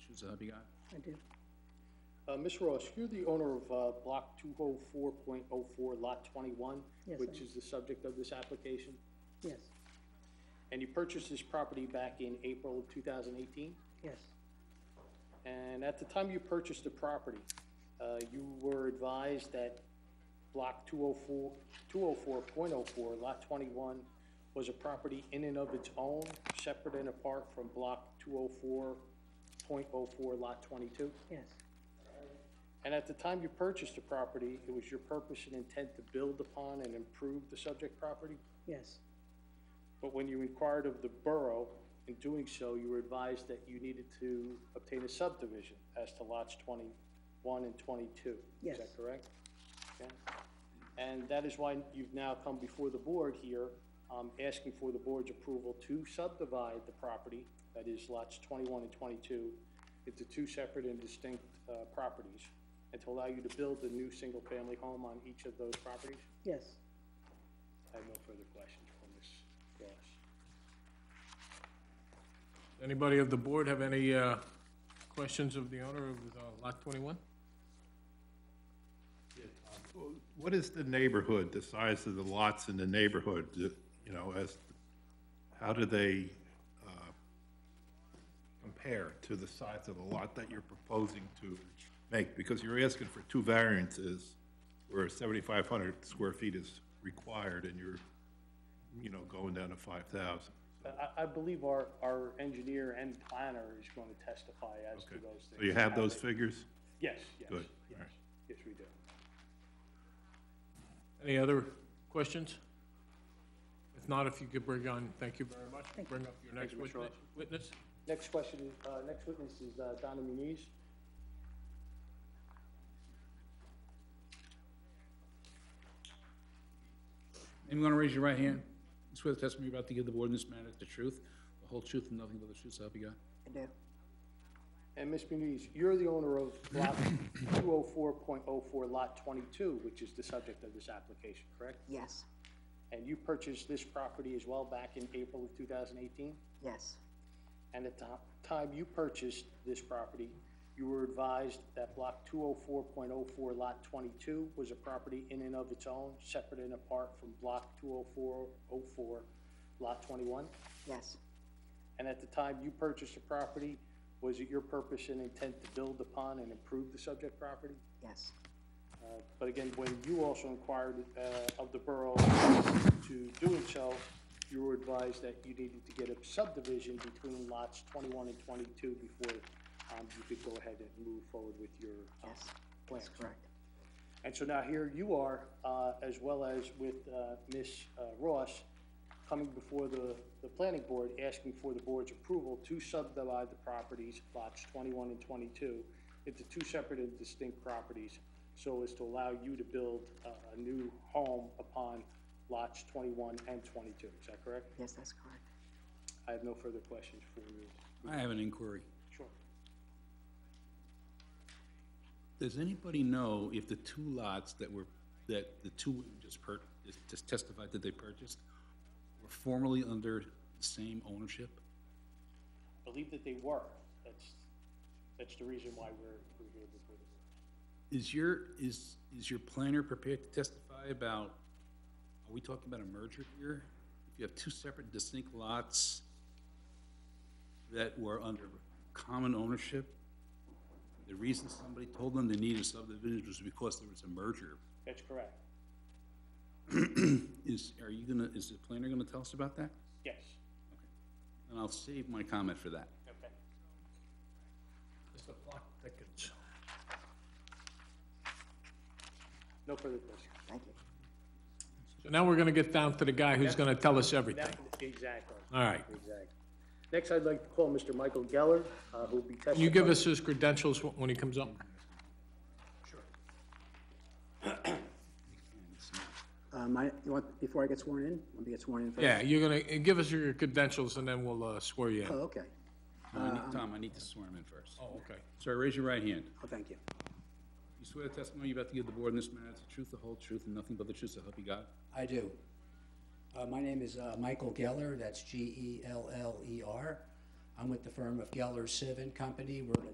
questions. Uh, Bigot? I do. Uh, Ms. Ross, you're the owner of, uh, block two oh four point oh four, lot twenty-one, Yes, I which am. is the subject of this application, Yes, and you purchased this property back in April of two thousand eighteen? yes, And at the time you purchased the property, uh, you were advised that block 204 204.04, lot 21, was a property in and of its own, separate and apart from block 204.04, lot 22? yes, And at the time you purchased the property, it was your purpose and intent to build upon and improve the subject property? yes, But when you inquired of the borough, in doing so, you were advised that you needed to obtain a subdivision as to lots 21 and 22. Is Yes. that correct? Okay. And that is why you've now come before the board here, um, asking for the board's approval to subdivide the property, that is lots 21 and 22, into two separate and distinct uh, properties, and to allow you to build a new single-family home on each of those properties? yes. I have no further questions for Ms. Ross. Anybody of the board have any uh, questions of the owner of uh, Lot 21? What is the neighborhood, the size of the lots in the neighborhood, you know, as, how do they uh, compare to the size of the lot that you're proposing to make? Because you're asking for two variances where 7,500 square feet is required and you're, you know, going down to 5,000. I, I believe our, our engineer and planner is going to testify as to Okay. those things. So you have those figures? Yes, yes. Good, yes. all right. Yes, we do. Any other questions? If not, if you could bring on, thank you very much. Bring up your next you, Mr. Ross. witness- witness. Next question, is- uh, next witness is uh, Donna Muniz. Anyone want to raise your right hand? You Swear the testimony you're about to give the board in this matter is the truth, the whole truth, and nothing but the truth, so help you God. I do. And Ms. Muniz, you're the owner of oh block 204.04, lot 22, which is the subject of this application, correct? Yes, And you purchased this property as well back in April of 2018? yes, And at the time you purchased this property, you were advised that block 204.04, lot 22, was a property in and of its own, separate and apart from block 204.04, lot 21? yes, And at the time you purchased the property, was it your purpose and intent to build upon and improve the subject property? yes, Uh, But again, when you also inquired uh, of the borough to doing so, you were advised that you needed to get a subdivision between lots 21 and 22 before um, you could go ahead and move forward with your uh, yes, plans. correct. And so now here you are, uh, as well as with uh, Ms. uh, Ross, coming before the, the planning board, asking for the board's approval to subdivide the properties, lots 21 and 22, into two separate and distinct properties, so as to allow you to build a a new home upon lots 21 and 22. Is that correct? Yes, that's correct. I have no further questions for you. I have an inquiry. Sure. Does anybody know if the two lots that were, that the two women just per, just testified that they purchased were formerly under the same ownership? Believe that they were. That's, that's the reason why we're, we're here before the board. Is your, is, is your planner prepared to testify about, are we talking about a merger here? If you have two separate distinct lots that were under common ownership, the reason somebody told them they needed subdivision was because there was a merger. That's correct. Is, are you gonna, is the planner gonna tell us about that? Yes. And I'll save my comment for that. Okay. As the clock thickens. No further questions. Thank you. So now we're going to get down to the guy who's going to tell us everything. That- Exactly, All right. exactly. Next, I'd like to call Mr. Michael Geller, uh, who'll be testifying. Can you give us his credentials wh- when he comes up? Uh, my, you want, before I get sworn in, let me get sworn in first. Yeah, you're going to, give us your credentials and then we'll uh, swear you in. Oh, okay. No, I need- Tom, I need to swear him in first. Oh, okay. Sir, raise your right hand. Oh, thank you. You swear the testimony you're about to give the board in this matter is the truth, the whole truth, and nothing but the truth, so help you God? I do. Uh, My name is uh, Michael E Geller, that's G-E-L-L-E-R. I'm with the firm of Geller Siv and Company. We're an